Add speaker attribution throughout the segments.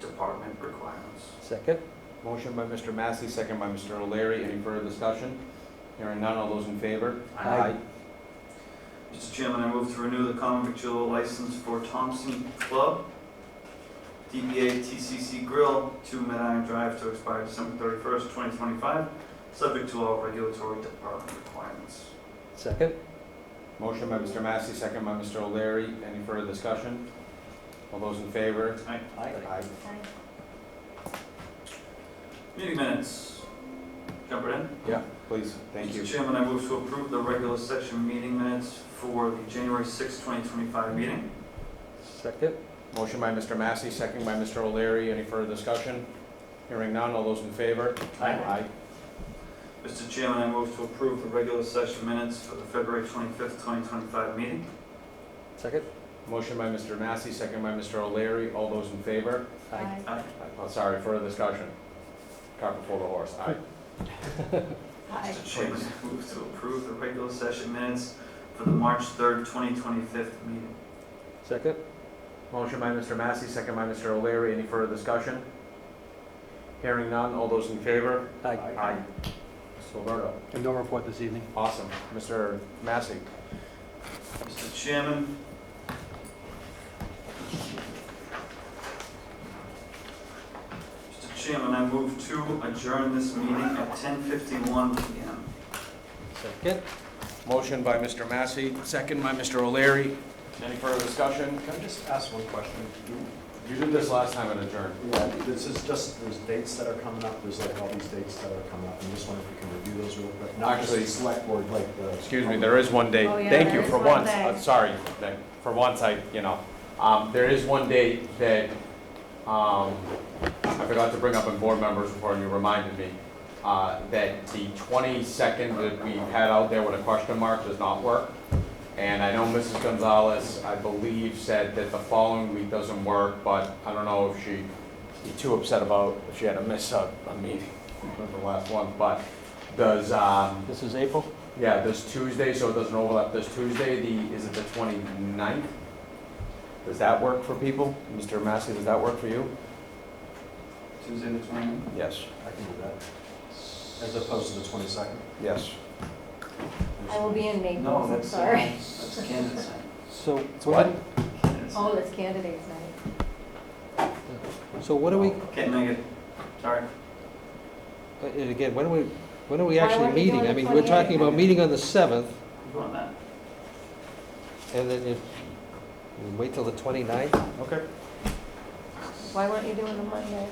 Speaker 1: department requirements.
Speaker 2: Second?
Speaker 3: Motion by Mr. Massey, second by Mr. O'Leary. Any further discussion? Hearing none, all those in favor?
Speaker 2: Aye.
Speaker 1: Mr. Chairman, I move to renew the common victual license for Thompson Club, DBA TCC Grill, 2 Mediron Drive, to expire December 31st, 2025, subject to all regulatory department requirements.
Speaker 2: Second?
Speaker 3: Motion by Mr. Massey, second by Mr. O'Leary. Any further discussion? All those in favor? Aye.
Speaker 1: Meeting minutes. Jump right in.
Speaker 3: Yeah, please, thank you.
Speaker 1: Mr. Chairman, I move to approve the regular session meeting minutes for the January 6th, 2025 meeting.
Speaker 2: Second?
Speaker 3: Motion by Mr. Massey, second by Mr. O'Leary. Any further discussion? Hearing none, all those in favor?
Speaker 1: Mr. Chairman, I move to approve the regular session minutes for the February 25th, 2025 meeting.
Speaker 2: Second?
Speaker 3: Motion by Mr. Massey, second by Mr. O'Leary. All those in favor?
Speaker 2: Aye.
Speaker 1: Aye.
Speaker 3: Oh, sorry, further discussion. Cart before the horse, aye.
Speaker 1: Mr. Chairman, I move to approve the regular session minutes for the March 3rd, 2025 meeting.
Speaker 2: Second?
Speaker 3: Motion by Mr. Massey, second by Mr. O'Leary. Any further discussion? Hearing none, all those in favor?
Speaker 2: Aye.
Speaker 3: Mr. Gilberto.
Speaker 2: And no report this evening.
Speaker 3: Awesome. Mr. Massey.
Speaker 1: Mr. Chairman. Mr. Chairman, I move to adjourn this meeting at 10:51 PM.
Speaker 2: Second?
Speaker 3: Motion by Mr. Massey, second by Mr. O'Leary. Any further discussion?
Speaker 4: Can I just ask one question?
Speaker 3: You did this last time and adjourned.
Speaker 4: Yeah, this is just, there's dates that are coming up, there's like all these dates that are coming up, I'm just wondering if we can review those real quick. Not just
Speaker 3: Actually-
Speaker 4: the select board, like the.
Speaker 3: Excuse me, there is one date.
Speaker 5: Oh, yeah,
Speaker 3: Thank
Speaker 5: there
Speaker 3: you
Speaker 5: is
Speaker 3: for
Speaker 5: one
Speaker 3: once.
Speaker 5: day.
Speaker 3: Uh, Sorry, that- for once, I, you know, um, there is one date that, um, I forgot to bring up in board members before you reminded me, uh, that the twenty-second that we had out there with a question mark does not work. And I know Mrs. Gonzalez, I believe, said that the following week doesn't work, but I don't know if she, too upset about if she had to miss a, a meeting, the last one, but does, um,
Speaker 2: This is April?
Speaker 3: yeah, this Tuesday, so it doesn't overlap, this Tuesday, the, is it the 29th? Does that work for people? Mr. Massey, does that work for you?
Speaker 1: Tuesday the 20th.
Speaker 3: Yes.
Speaker 4: I can do that, as opposed to the twenty-second.
Speaker 3: Yes.
Speaker 5: I will be in
Speaker 1: No,
Speaker 5: Naples, I'm
Speaker 1: that's, uh,
Speaker 5: sorry.
Speaker 1: that's Kansas.
Speaker 2: So
Speaker 3: What?
Speaker 1: Kansas.
Speaker 5: Oh, that's candidates night.
Speaker 2: So what do we,
Speaker 1: Can't make it, sorry.
Speaker 2: and uh, again, when are we, when are we
Speaker 5: Why
Speaker 2: actually
Speaker 5: weren't we doing
Speaker 2: meeting? I
Speaker 5: the
Speaker 2: mean, we're talking
Speaker 5: 28th?
Speaker 2: about meeting on the seventh,
Speaker 1: Go on that.
Speaker 2: and then you, you wait till the 29th?
Speaker 3: Okay.
Speaker 5: Why weren't you doing the Monday?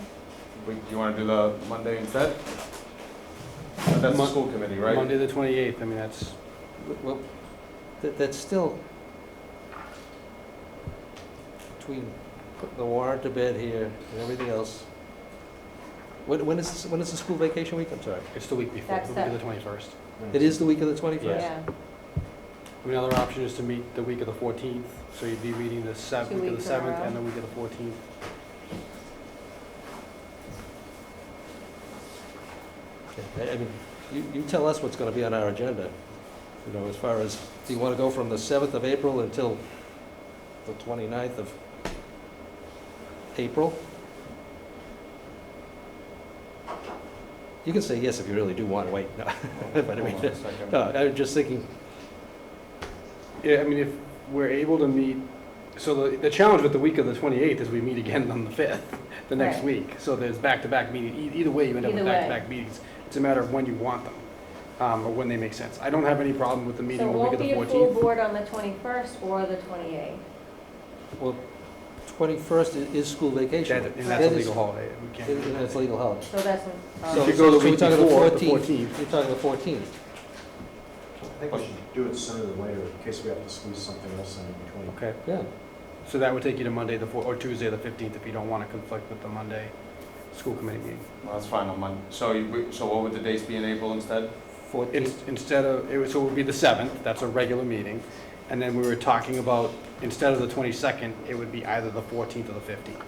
Speaker 3: We- You want to do the Monday instead? But That's the
Speaker 6: Mon-
Speaker 3: school committee, right?
Speaker 6: the 28th, I mean, that's.
Speaker 2: Well, that, that's still between putting the warrant to bed here and everything else. When, when is, when is the school vacation week? I'm sorry.
Speaker 6: It's the week before,
Speaker 5: That's
Speaker 6: the week of
Speaker 5: the-
Speaker 6: the 21st.
Speaker 2: It is the week of the 21st?
Speaker 5: Yeah,
Speaker 6: Another option is to meet the week of the 14th, so you'd be meeting the 7th, week
Speaker 5: Two
Speaker 6: of the
Speaker 5: weeks in a
Speaker 6: 7th
Speaker 5: row.
Speaker 6: and the week of the 14th.
Speaker 2: Okay, I I mean, you, you tell us what's gonna be on our agenda, you know, as far as, do you wanna go from the seventh of April until the 29th of April? You can say yes if you really do wanna wait, no, but I mean,
Speaker 3: Hold on a second.
Speaker 2: no,
Speaker 6: Uh,
Speaker 2: I was just thinking,
Speaker 6: Yeah, I mean, if we're able to meet, so the, the challenge with the week of the 28th is we meet again on the 5th, the next
Speaker 5: Right.
Speaker 6: week. So there's back-to-back meetings, either way, you end up with
Speaker 5: Either way.
Speaker 6: back-to-back meetings. It's a matter of when you want them, um, or when they make sense. I don't have any problem with the
Speaker 5: so
Speaker 6: meeting
Speaker 5: it
Speaker 6: the week
Speaker 5: won't
Speaker 6: of the
Speaker 5: be a full
Speaker 6: 14th.
Speaker 5: board on the 21st or the 28th.
Speaker 2: well, twenty-first is, is school vacation.
Speaker 6: That- And that's a
Speaker 2: That is-
Speaker 6: legal holiday. We can't
Speaker 2: it-
Speaker 6: do
Speaker 2: it- That's a
Speaker 6: that.
Speaker 2: legal holiday.
Speaker 5: So that's,
Speaker 6: If you
Speaker 5: um,
Speaker 6: go the
Speaker 2: So we're
Speaker 6: week
Speaker 2: talking the
Speaker 6: before, the
Speaker 2: 14th.
Speaker 6: 14th.
Speaker 2: You're talking the fourteenth.
Speaker 4: I think we should do it sooner than later, in case we have to squeeze something else in between.
Speaker 6: Okay.
Speaker 2: Yeah,
Speaker 6: So that would take you to Monday the four, or Tuesday the fifteenth if you don't want to conflict with the Monday school committee meeting.
Speaker 3: Well, That's fine on Monday. So, you- we- so what would the dates be in April instead?
Speaker 6: It's,
Speaker 2: fourteenth,
Speaker 6: instead of, it would, so it would be the seventh, that's a regular meeting. And then we were talking about, instead of the twenty-second, it would be either the fourteenth or the fifteenth.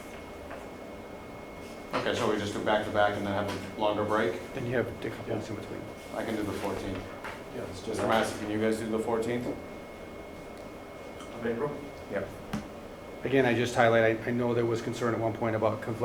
Speaker 3: Okay, so we just do back-to-back and then have a longer break?
Speaker 6: Then you have a couple weeks in between.
Speaker 3: I can do the 14th.
Speaker 4: Yeah, let's do
Speaker 3: Mr.
Speaker 4: that.
Speaker 3: Massey, can you guys do the 14th?
Speaker 1: of April?
Speaker 6: Again, I just highlight, I, I know there was concern at one point about conflict